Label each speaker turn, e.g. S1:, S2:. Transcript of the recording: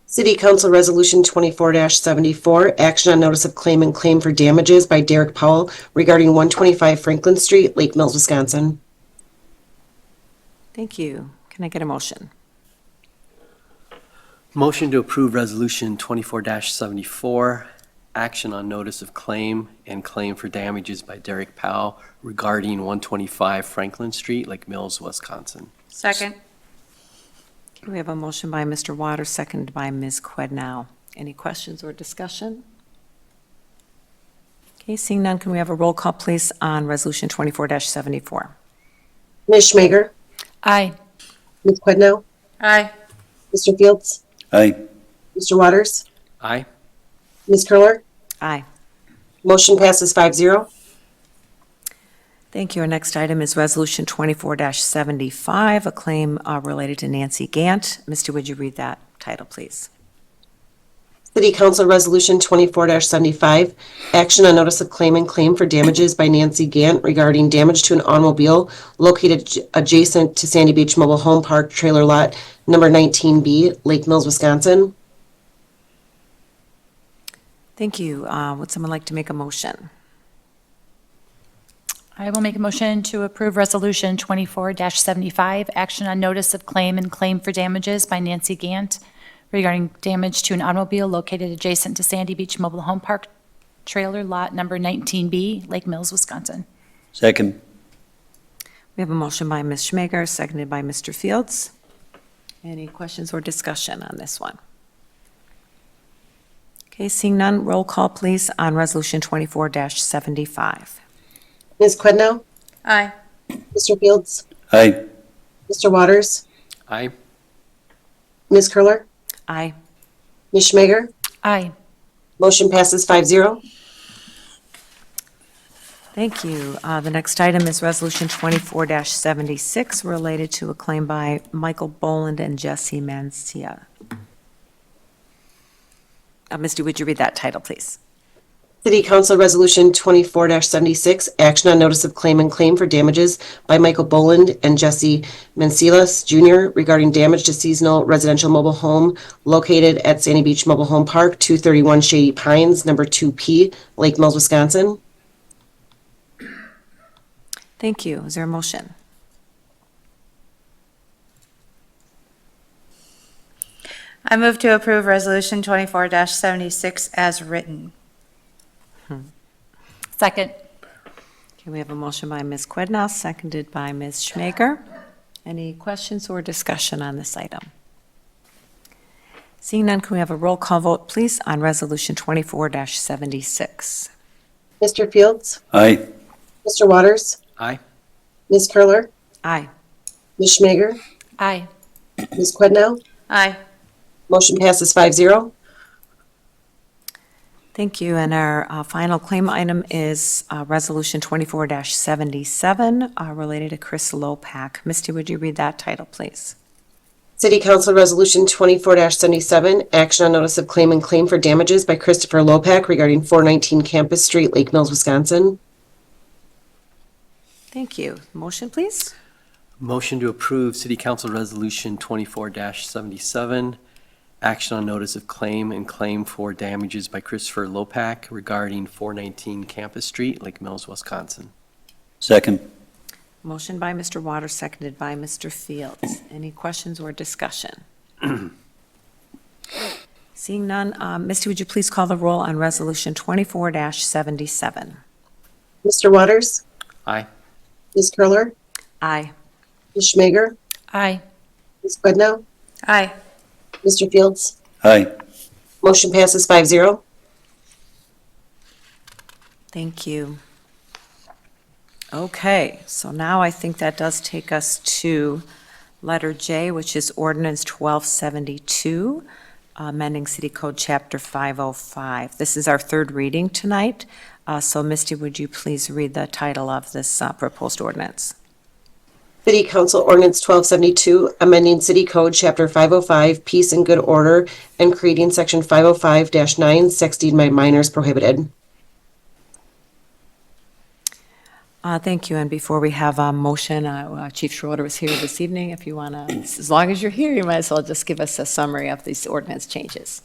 S1: City Council Resolution 24-74, action on notice of claim and claim for damages by Derek Powell regarding 125 Franklin Street, Lake Mills, Wisconsin.
S2: Thank you. Can I get a motion?
S3: Motion to approve Resolution 24-74, action on notice of claim and claim for damages by Derek Powell regarding 125 Franklin Street, Lake Mills, Wisconsin.
S4: Second.
S2: We have a motion by Mr. Waters, seconded by Ms. Quidnow. Any questions or discussion? Okay, seeing none, can we have a roll call, please, on Resolution 24-74?
S1: Ms. Schmager?
S4: Aye.
S1: Ms. Quidnow?
S4: Aye.
S1: Mr. Fields?
S5: Aye.
S1: Mr. Waters?
S3: Aye.
S1: Ms. Curler?
S2: Aye.
S1: Motion passes 5-0.
S2: Thank you. Our next item is Resolution 24-75, a claim uh, related to Nancy Gant. Mr. Would you read that title, please?
S1: City Council Resolution 24-75, action on notice of claim and claim for damages by Nancy Gant regarding damage to an automobile located j- adjacent to Sandy Beach Mobile Home Park Trailer Lot Number 19B, Lake Mills, Wisconsin.
S2: Thank you. Uh, Would someone like to make a motion?
S4: I will make a motion to approve Resolution 24-75, action on notice of claim and claim for damages by Nancy Gant regarding damage to an automobile located adjacent to Sandy Beach Mobile Home Park Trailer Lot Number 19B, Lake Mills, Wisconsin.
S5: Second.
S2: We have a motion by Ms. Schmager, seconded by Mr. Fields. Any questions or discussion on this one? Okay, seeing none, roll call, please, on Resolution 24-75.
S1: Ms. Quidnow?
S4: Aye.
S1: Mr. Fields?
S5: Aye.
S1: Mr. Waters?
S3: Aye.
S1: Ms. Curler?
S2: Aye.
S1: Ms. Schmager?
S4: Aye.
S1: Motion passes 5-0.
S2: Thank you. Uh, The next item is Resolution 24-76, related to a claim by Michael Boland and Jesse Mancia. Uh, Misty, would you read that title, please?
S1: City Council Resolution 24-76, action on notice of claim and claim for damages by Michael Boland and Jesse Mencilas Jr. regarding damage to seasonal residential mobile home located at Sandy Beach Mobile Home Park, 231 Shady Pines, number 2P, Lake Mills, Wisconsin.
S2: Thank you. Is there a motion?
S6: I move to approve Resolution 24-76 as written.
S4: Second.
S2: Okay, we have a motion by Ms. Quidnaw, seconded by Ms. Schmager. Any questions or discussion on this item? Seeing none, can we have a roll call vote, please, on Resolution 24-76?
S1: Mr. Fields?
S5: Aye.
S1: Mr. Waters?
S3: Aye.
S1: Ms. Curler?
S2: Aye.
S1: Ms. Schmager?
S4: Aye.
S1: Ms. Quidnow?
S6: Aye.
S1: Motion passes 5-0.
S2: Thank you. And our uh, final claim item is uh, Resolution 24-77, uh, related to Chris Lopak. Misty, would you read that title, please?
S1: City Council Resolution 24-77, action on notice of claim and claim for damages by Christopher Lopak regarding 419 Campus Street, Lake Mills, Wisconsin.
S2: Thank you. Motion, please?
S3: Motion to approve City Council Resolution 24-77, action on notice of claim and claim for damages by Christopher Lopak regarding 419 Campus Street, Lake Mills, Wisconsin.
S5: Second.
S2: Motion by Mr. Waters, seconded by Mr. Fields. Any questions or discussion? Seeing none, um, Misty, would you please call the roll on Resolution 24-77?
S1: Mr. Waters?
S3: Aye.
S1: Ms. Curler?
S2: Aye.
S1: Ms. Schmager?
S4: Aye.
S1: Ms. Quidnow?
S6: Aye.
S1: Mr. Fields?
S5: Aye.
S1: Motion passes 5-0.
S2: Thank you. Okay, so now I think that does take us to letter J, which is ordinance 1272, amending City Code Chapter 505. This is our third reading tonight, Uh, so Misty, would you please read the title of this uh, proposed ordinance?
S1: City Council Ordinance 1272, amending City Code Chapter 505, Peace and Good Order, and creating Section 505-9, sexting by minors prohibited.
S2: Uh, Thank you, and before we have a motion, uh, uh, Chief Schroeder is here this evening. If you want to, as long as you're here, you might as well just give us a summary of these ordinance changes.